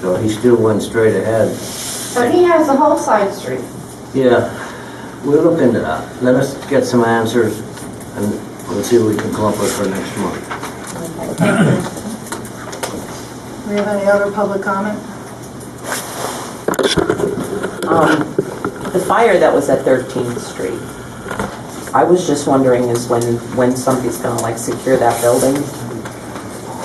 So he still went straight ahead. But he has the whole side street. Yeah, we'll look into that. Let us get some answers and we'll see what we can come up with for next month. Do we have any other public comment? Um, The fire that was at 13th Street, I was just wondering is when, when somebody's gonna like secure that building?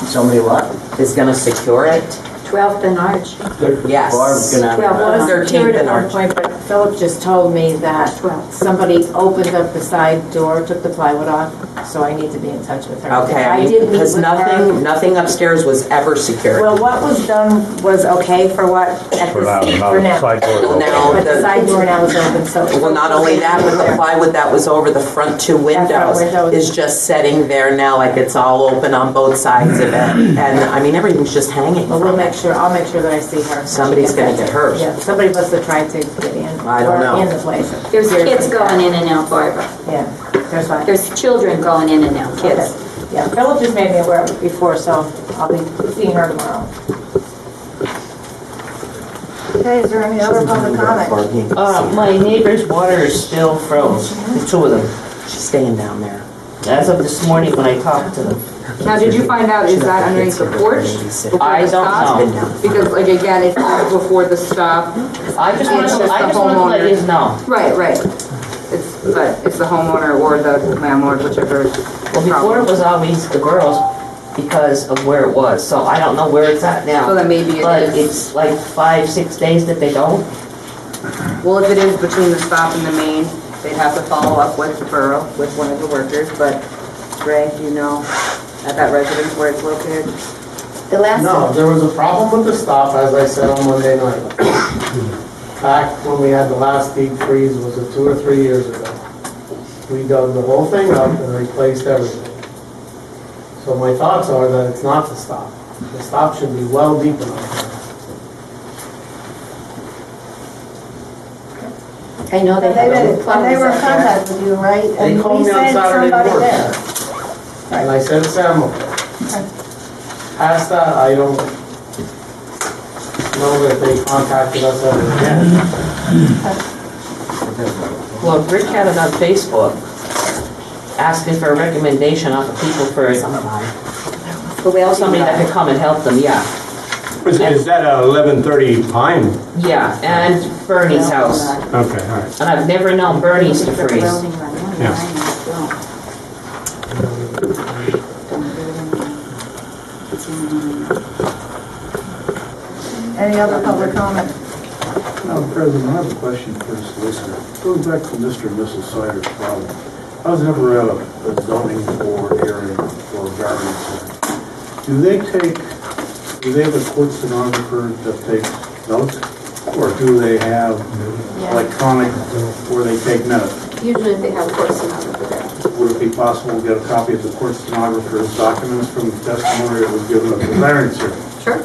Somebody what? Is gonna secure it? 12th and Arch. Yes. Barb's gonna have Well, that. it was 13th secured at and one Arch. point, but Philip just told me that somebody opened up the side door, took the plywood off, so I need to be in touch with her. Okay, I I mean, did meet because with nothing, her. nothing upstairs was ever secured. Well, what was done was okay for what? at For the- now, now, for now. side door is open. Now, But the the- side door now is open, so. well, not only that, but the plywood that was over the front two windows windows. is just sitting there now, like it's all open on both sides of it. And, I mean, everything's just hanging Well, we'll from make it. sure, I'll make sure that I see her. Somebody's gonna get hurt. Yeah, somebody must have tried to get in. I don't or know. In the place. There's kids going in and out, Barbara. Yeah, there's one. There's children going in and out, kids. Okay. Yeah, Philip just made me aware of it before, so I'll be seeing her tomorrow. Okay, is there any other public comment? Uh, my neighbor's water is still froze, the two of them, She's staying down there. as of this morning when I talked to them. Now, did you find out, is that underneath the porch? I Before don't the stop? know. Because like again, it's not before the stop. I just want It's to, just I the just want to let homeowner. you know. Right, right. It's, but it's the homeowner or the landlord, whichever. is Well, before it problem. was always the girls because of where it was, so I don't know where it's at So now. then maybe But it is, it's like five, six days that they don't. well, if it is between the stop and the main, they'd have to follow up with the borough, with one of the workers, but Greg, do you know, at that residence where it's located? The last. No, there was a problem with the stop, as I said on Monday night. Back when we had the last deep freeze, was it two or three years ago? We dug the whole thing up and replaced everything. So my thoughts are that it's not the stop. The stop should be well deep enough. I know they They had. were, a plumber they were in out there. contact with you, right? They And we called me on sent Saturday somebody morning. there. And I said, Sam, okay." past that, I don't know that they contacted us ever again. Well, Rick had it on Facebook, asking for a recommendation off of people for The Wales somebody that could come and help them, yeah. Is is that a 11:30 pine? Yeah, and Bernie's house. Okay, all right. And I've never known Bernie's to freeze. Yeah. Any other public comment? Madam President, I have a question for the solicitor. Going back to Mr. and Mrs. Sider's problem, I was never at a a zoning board area or a garden center. Do they take, do they have a court stenographer that takes notes? Or do they have electronic where they take minutes? Usually they have a person over there. Would it be possible to get a copy of the court stenographer's documents from the testimony that was given at the variance hearing? Sure.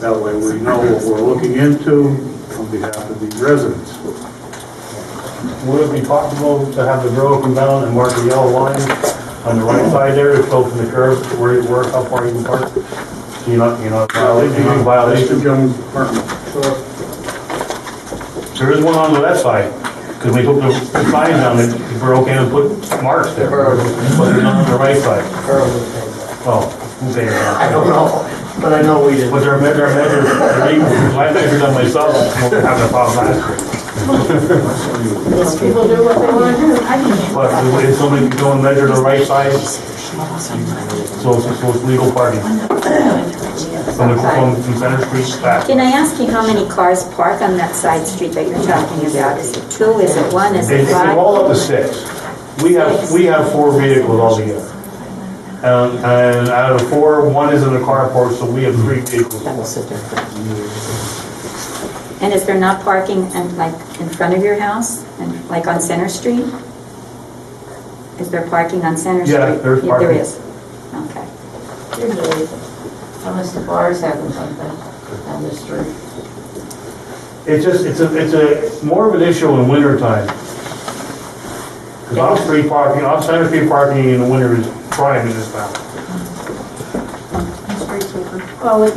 That way we know what we're looking into on behalf of the residents. Would it be possible to have the road come down and mark the yellow line on the right side there, to go from the curb to where you work, how far you can park? Do you not, you know, violate- you know, Mr. violation? Jones' department. There is one on the left side, because we put the signs on it, if we're okay to put marks there, but they're not on the right side. Earl would take that. Well, who's saying I that? don't know, but I know we did. But they're, they're measured, they're equal, I measured them myself, I'm having a problem last year. People do what they want to do. But if somebody could go and measure the right side, so it's, so it's legal parking. From the, from from Center Street back. Can I ask you how many cars park on that side street that you're talking about? Is it two, is it one, is it It's they're all five? up to six. We have, we have four vehicles altogether. Um, and out of the four, one is in the carport, so we have three vehicles. That was a different. And is there not parking and like in front of your house and like on Center Street? Is there parking on Center Street? Yeah, there's There parking. is. Okay. Usually, Unless the bar's having something on the street. It's just, it's a, it's a, more of an issue in winter time. Cause on street parking, on Center Street parking in the winter is prime in this town. Street sweeper. Well,